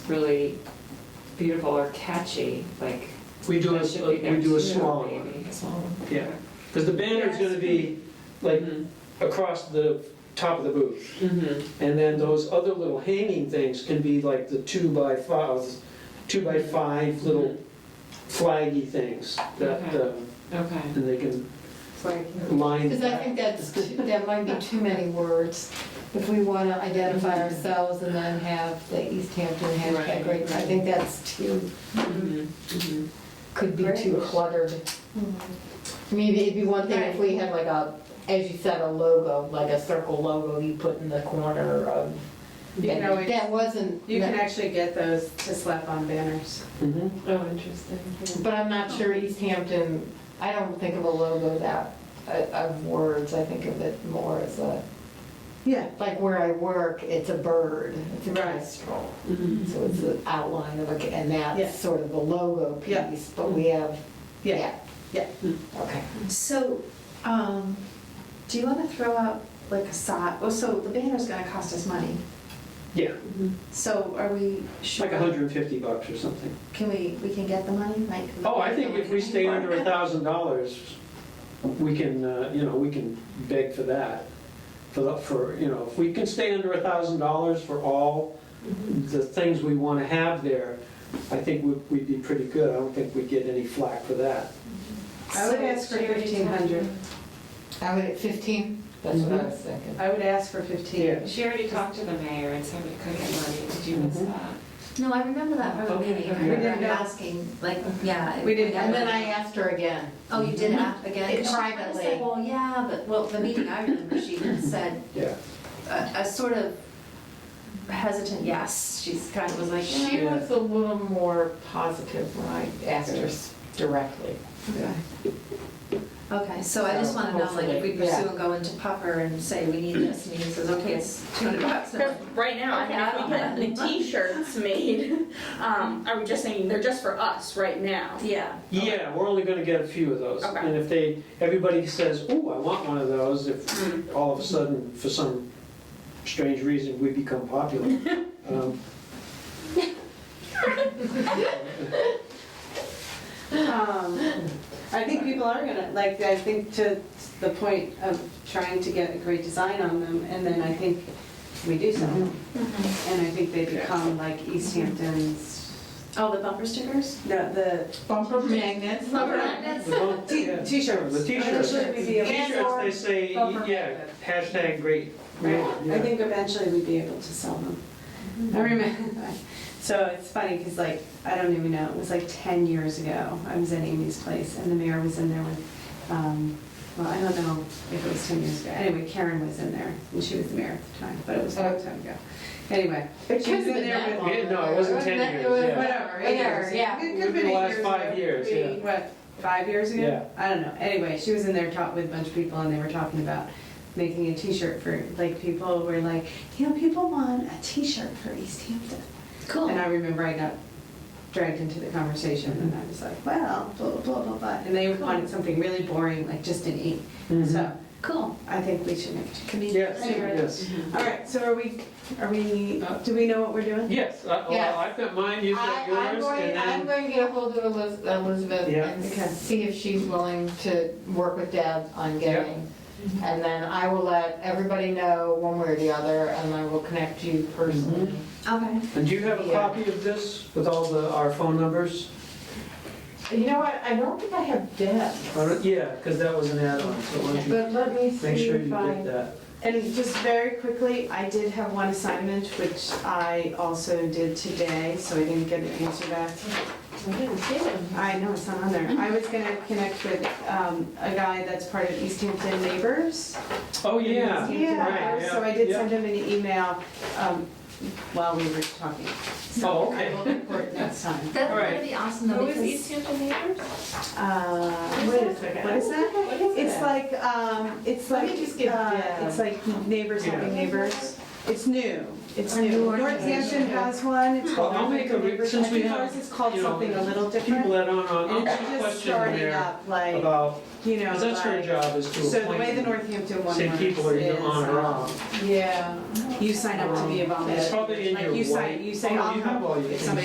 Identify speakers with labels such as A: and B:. A: really beautiful or catchy, like.
B: We do a, uh,
A: that should be
B: we
A: next
B: do a
A: to it,
B: smaller one,
A: maybe.
B: yeah. Because the banner's gonna be like across the top of the booth.
A: Mhm.
B: And then those other little hanging things can be like the two by five, two by five little flaggy things that, uh,
A: Okay.
B: and they can
C: Right.
B: line.
C: Because I think that's, too- that might be too many words. If we want to identify ourselves and then have the East Hampton hashtag,
A: Right.
C: right, I think that's too,
A: Mhm, mhm.
C: could be too cluttered.
D: Mm-hmm.
C: I mean, it'd be one thing if we had like a, as you said, a logo, like a circle logo you put in the corner of.
D: You can always-
C: That wasn't,
D: You can actually get those to slap on banners.
B: Mhm.
A: Oh, interesting.
C: but I'm not sure East Hampton, I don't think of a logo that, uh, of words, I think of it more as a.
D: Yeah.
C: Like where I work, it's a bird, it's a
D: Right.
C: kestrel.
A: Mhm.
C: So it's the outline of a, and
D: Yeah.
C: that's sort of the logo
D: Yeah.
C: piece, but we have,
D: Yeah,
C: yeah.
D: yeah.
C: Okay.
E: So, um, do you wanna throw out like a side, well, so the banner's gonna cost us money,
B: Yeah,
E: so are we sure?
B: like a hundred and fifty bucks or something.
E: Can we, we can get the money, like?
B: Oh, I think if we stay under a thousand dollars, we can, uh, you know, we can beg for that. For, the- for, you know, if we can stay under a thousand dollars for all the things we want to have there, I think we'd- we'd be pretty good. I don't think we'd get any flack for that.
D: I would ask for fifteen hundred.
C: I would, 15? That's what I was thinking.
D: I would ask for fifteen.
A: She already talked to the mayor and said we couldn't get money. Did you miss
B: Mhm.
A: that?
F: No, I remember that from the
A: Okay, okay.
F: meeting. I remember
D: We didn't know.
F: asking, like, yeah.
D: We didn't know.
C: And then I asked her again.
F: Oh, you
E: Mm-hmm.
F: did ask again?
C: It-
F: She kinda
C: privately.
F: said, Well, yeah, but, well, the meeting I remember, she said
B: Yeah.
F: a, a sort of hesitant yes. She's kind of was like, eh.
C: She was a little more positive when I asked her s- directly.
F: Okay. Okay, so I just wanna know, like, if we
C: Hopefully, yeah.
F: pursue and go into Puffer and say we need this, and he says, okay, it's two hundred bucks. and I'm
G: Because
F: like,
G: right now,
F: Okay, I don't
G: I
F: have
G: mean, if we
F: any.
G: had the t-shirts made, um, are we just saying they're just for us right now?
F: Yeah.
B: Yeah, we're only going to get a few of those.
G: Okay.
B: And if they, everybody says, oh, I want one of those, if
G: Mm.
B: all of a sudden, for some strange reason, we become popular. um,
D: Um, I think people are gonna, like, I think to the point of trying to get a great design on them, and then I think we do some. And I think they become like East Hampton's,
F: Oh, the bumper stickers?
D: no, the
C: Bumper magnets.
B: the one- yeah.
D: t- t-shirts.
B: The t-shirts.
D: Eventually we'd be able-
B: T-shirts, they say,
D: Bumper.
B: yeah, hashtag great.
D: Right, I
B: Yeah.
D: think eventually we'd be able to sell them. I remember, so it's funny, because like, I don't even know, it was like 10 years ago, I was at Amy's place, and the mayor was in there with, um, well, I don't know if it was 10 years ago, anyway, Karen was in there, and she was the mayor at the time, but it was a long time ago. Anyway, she was in there with.
B: Yeah, no, it wasn't 10 years, yeah.
D: Whatever, eight years.
C: Yeah.
D: It could have been
B: The
D: eight
B: last
D: years.
B: five
D: ago.
B: years,
D: Maybe,
B: yeah.
D: What, five years ago?
B: Yeah.
D: I don't know. Anyway, she was in there talking with a bunch of people and they were talking about making a t-shirt for, like, people were like, you know, people want a t-shirt for East Hampton.
F: Cool.
D: And I remember I got dragged into the conversation and I was like, well, blah, blah, blah, blah, blah. And they wanted something really boring, like just an ink.
B: Mm-hmm.
D: So
F: Cool.
D: I think we should make a t-shirt.
B: Yes,
D: Anyway.
B: yes.
D: All right, so are we, are we, do we know what we're doing?
B: Yes, I-
C: Yes.
B: well, I've got mine, you've
C: I-
B: got
C: I'm
B: yours,
C: going,
B: and
C: I'm
B: then,
C: going to get ahold of Eliz- Elizabeth
B: Yeah.
C: and
D: Okay.
C: see if she's willing to work with Deb on getting. And then I will let everybody know one way or the other, and I will connect you personally.
F: Okay.
B: and do you have a
C: Yeah.
B: copy of this with all the, our phone numbers?
C: You know what, I don't think I have
B: I
C: Deb,
B: don't- Yeah, because that was an add-on, so why don't you
C: but let me
B: make
C: see
B: sure you
C: if
B: get
C: I.
B: that.
D: And just very quickly, I did have one assignment, which I also did today, so I didn't get an answer back. I know, it's not on there. I was gonna connect with um, a guy that's part of East Hampton Neighbors.
B: Oh, yeah.
D: Yeah,
B: right,
D: so I
B: yeah,
D: did
B: yeah.
D: send him an email um, while we were talking.
B: Oh,
D: So I
B: okay.
D: will report next time.
F: That
B: All right.
F: would be awesome though, because.
A: Hampton neighbors?
D: Uh, Wait a second, what is that?
C: What is
D: It's
C: that?
D: like, um, it's
C: Let
D: like,
C: me just get
D: uh,
C: Deb.
D: it's like neighbors helping
B: Yeah.
D: neighbors. It's new, it's
F: A
D: new.
F: new
D: Northampton
F: organization.
D: has one, it's called.
B: I'll make a re-
D: Neighbors.
B: since
D: I
B: we
D: think
B: have,
D: ours is called
B: you know,
D: something a little
B: People
D: different.
B: that aren't on,
D: And
B: I'll put a
D: it's just
B: question
D: starting
B: there
D: up, like,
B: about,
D: you know,
B: because that's her
D: like.
B: job is to
D: So the way the
B: appoint,
D: Northampton one
B: say
D: works
B: people are either
D: is,
B: on or
D: um,
B: off.
D: Yeah,
B: You sign up to be a volunteer.
D: It's probably in
B: Like
D: your
B: you
D: white-
B: sign, you say,
D: Oh, no, you
B: I'll
D: have all your
B: "Oh, if
D: things.
B: somebody